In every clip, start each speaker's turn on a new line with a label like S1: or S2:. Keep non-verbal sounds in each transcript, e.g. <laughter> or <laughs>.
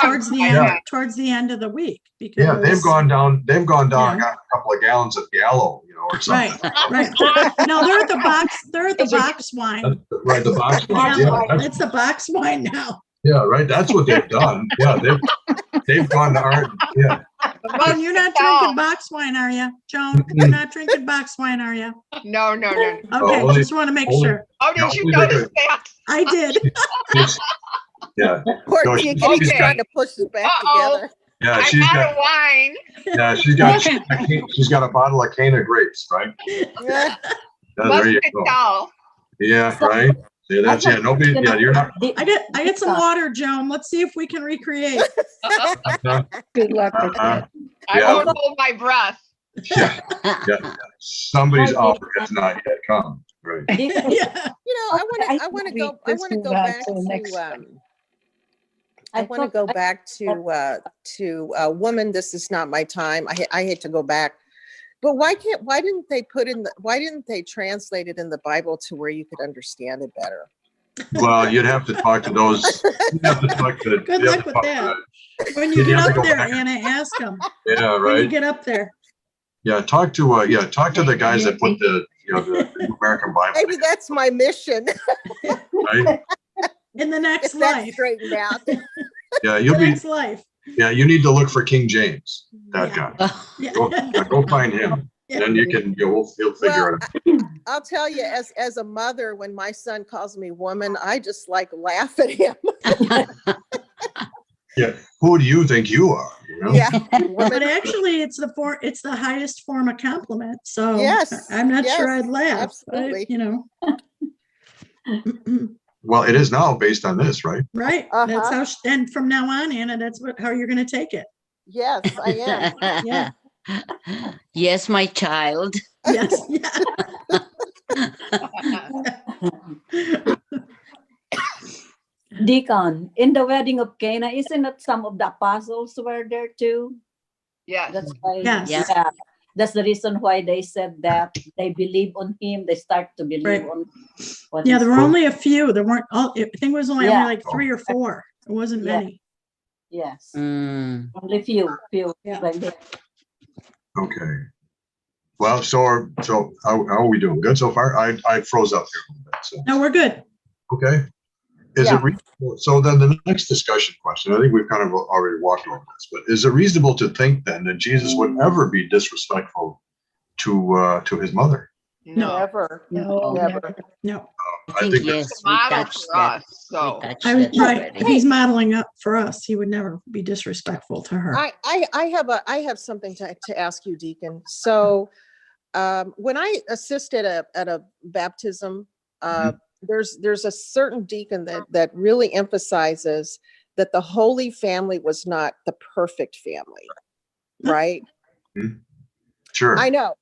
S1: towards the end,
S2: Yeah.
S3: <laughs>
S1: towards the end of the week because.
S2: Yeah, they've gone down, they've gone down, and
S1: Yeah.
S2: got a couple of gallons of Gallo, you know, or
S1: <laughs> Right,
S2: something.
S1: right. No, they're at the box, they're at the
S3: Is your-
S1: box wine.
S2: Right,
S1: <laughs>
S2: the box wine, yeah,
S1: Yeah,
S2: that's-
S1: It's the box wine now.
S2: yeah, right, that's what they've done, yeah, they've, they've gone to art, yeah.
S1: Well, you're not drinking box wine, are you, Joan? You're
S2: Mm-mm.
S1: not drinking box wine, are
S2: <laughs>
S1: you?
S3: No, no, no. no.
S1: Okay,
S2: Oh, only-
S1: just want to make
S2: only-
S1: sure.
S3: Oh,
S2: No,
S3: did you
S2: we don't
S3: notice
S2: do
S3: that?
S1: I did.
S2: it's- Yeah, No,
S4: Poor kid,
S2: she's-
S4: he's
S3: okay.
S4: trying to push us back
S3: Uh-oh.
S4: together.
S2: yeah,
S3: I'm
S2: Uh, she's
S3: out
S2: got, Uh,
S3: of wine.
S2: yeah,
S1: <laughs>
S2: she's got, she's got a bottle of Cana grapes, right?
S4: Yeah.
S2: Yeah,
S3: Must
S2: There
S3: be
S2: you go, <laughs>
S3: dull.
S2: yeah, right, yeah, that's, yeah, nobody, yeah, you're not,
S1: I get, I get <laughs> some water, Joan. Let's see if we can <laughs> recreate.
S2: uh-huh,
S5: Good luck with
S2: uh-huh,
S5: that.
S3: I
S2: Yeah.
S3: won't hold my breath. <laughs>
S2: yeah, yeah, somebody's out, that's not yet come, right,
S5: <laughs>
S1: Yeah.
S4: <laughs> You know, I want to, I
S5: Okay, I think
S4: want to
S5: we
S4: go, I
S5: just
S4: want to
S5: move
S4: go
S5: on
S4: back
S5: to the next
S4: to,
S5: one.
S4: um, I want to go
S5: thought- I-
S4: back to, uh, to, uh, woman, this is not my time. I, ha- I had to go back. But why can't, why didn't they put in, the? why didn't they translate it in the Bible to where you could understand it better?
S2: well, you'd have to talk to those, you'd have to talk
S1: <laughs>
S2: to.
S1: Good
S2: you'd
S1: luck
S2: have to
S1: with
S2: talk to
S1: that.
S2: the-
S1: When you
S2: Did you
S1: get
S2: have to
S1: up
S2: go
S1: there,
S2: back?
S1: Anna, ask them.
S2: Yeah,
S1: When you
S2: right.
S1: get up there.
S2: Yeah, talk to, uh, yeah, talk to the guys that put the, you know, the American Bible,
S4: Maybe that's my mission. <laughs>
S2: right?
S1: In the
S4: If
S1: next
S4: that's
S1: life.
S4: straightened out.
S2: Yeah,
S1: The
S2: you'll be,
S1: next life.
S2: yeah, you need to look for King James, that
S1: Yeah.
S2: guy.
S1: Yeah.
S2: Go, yeah, go find him. Then you can, you'll, you'll figure
S4: Well,
S2: it out.
S4: I'll tell you, as, as a mother, when my son calls me woman, I just like laugh at him. <laughs>
S2: Who do you think you are? you know?
S4: Yeah.
S1: But
S4: Woman,
S1: actually, it's the for, it's the highest form of compliment, so.
S4: Yes,
S1: I'm not sure
S4: yes,
S1: I'd laugh,
S4: absolutely.
S1: but, you know. <laughs>
S2: Well, it is now based on this, right?
S1: Right, that's
S4: Uh-huh.
S1: how, sh- and from now on, Anna, that's what, how you're gonna take
S4: <laughs>
S1: it.
S4: Yes, I
S6: <laughs>
S4: am.
S1: Yeah.
S6: Yes, my child.
S1: Yes, <laughs> yeah.
S5: Deacon, in the wedding of Cana, isn't it some of the apostles were there too?
S3: Yes.
S5: That's why,
S1: Yes.
S6: Yeah.
S5: yeah, that's the reason why they said that they believe on him, they start to
S1: Right.
S5: believe on. what
S1: Yeah,
S5: he
S1: there were only a few, there weren't, all. I think it was only
S5: Yeah.
S1: only like three or four, it wasn't
S5: Yeah.
S1: many.
S5: said. Yes,
S6: Mm.
S5: only few, few.
S1: Yeah.
S5: like that.
S2: Okay. Well, so, are- so how, how are we doing? Good so far? I, I froze up here a little bit, so.
S1: No, we're good.
S2: Okay. Is it,
S5: Yeah.
S2: reasonable- so then the next discussion question, I think we've kind of already walked over this, but is it reasonable to think then that Jesus would ever be disrespectful to, uh, to his mother?
S1: No.
S4: Never,
S5: No,
S4: never.
S1: No,
S2: I
S6: I
S2: think that's-
S6: think yes,
S3: It's a
S6: we
S3: model
S6: touched
S3: for
S6: that.
S3: us,
S6: We
S3: so.
S6: touched
S1: I,
S6: that
S1: right,
S6: already.
S1: he's modeling up for us, he would never be disrespectful to her.
S4: I, I, I have a, I have something to, to ask you, Deacon. So, um, when I assisted a, at a baptism, uh, there's, there's a certain deacon that, that really emphasizes that the Holy Family was not the perfect family, right?
S1: <laughs>
S2: Sure.
S4: I know.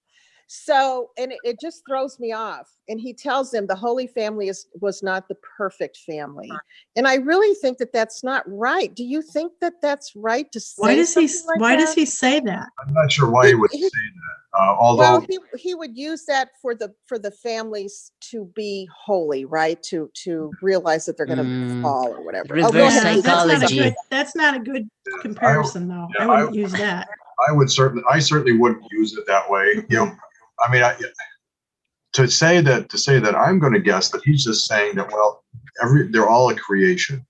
S4: So, and it, it just throws me off. And he tells them the Holy Family is was not the perfect family. And I really think that that's not right. Do you think that that's right to say?
S1: Why does he,
S4: something like
S1: why does
S4: that?
S1: he say that?
S2: I'm not sure why he would say that, uh,
S4: Well,
S2: although,
S4: he, he would use that for the for the families to be holy, right? To to realize that they're going to
S6: Mm,
S4: fall or whatever. Oh, go
S6: reverse
S4: ahead.
S1: Yeah, that's not a
S6: psychology.
S1: good- That's not a good comparison, though. I
S2: yeah, I
S1: wouldn't
S2: would-
S1: use that.
S2: I would certainly, I certainly wouldn't use it that way, you know, I mean, I, to say that, to say that, I'm gonna guess that he's just saying that, well, every, they're all a creation.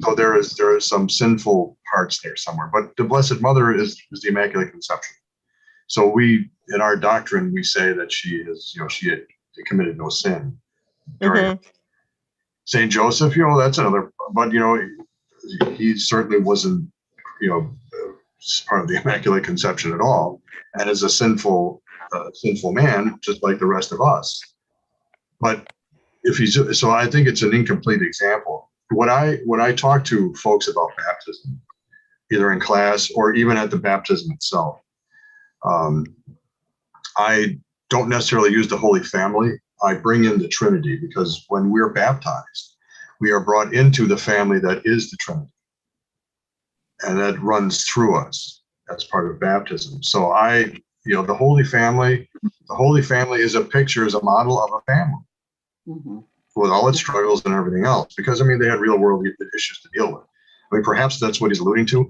S2: So there is, there is some sinful parts there somewhere, but the Blessed Mother is, is the Immaculate Conception. So we, in our doctrine, we say that she is, you know, she had committed no sin. during- Saint Joseph, you know, that's another, but you know, he- he certainly wasn't, you know, uh, part of the Immaculate Conception at all, and is a sinful, uh, sinful man, just like the rest of us. But if he's, so I think it's an incomplete example. When I, when I talk to folks about baptism, either in class or even at the baptism itself, um, I don't necessarily use the Holy Family. I bring in the Trinity because when we're baptized, we are brought into the family that is the Trinity and that runs through us. That's part of baptism. So I, you know, the Holy Family, the Holy Family is a picture, is a model of a family
S5: Mhm.
S2: with all its struggles and everything else. Because I mean, they had real world issues to deal with. I mean, perhaps that's what he's alluding to.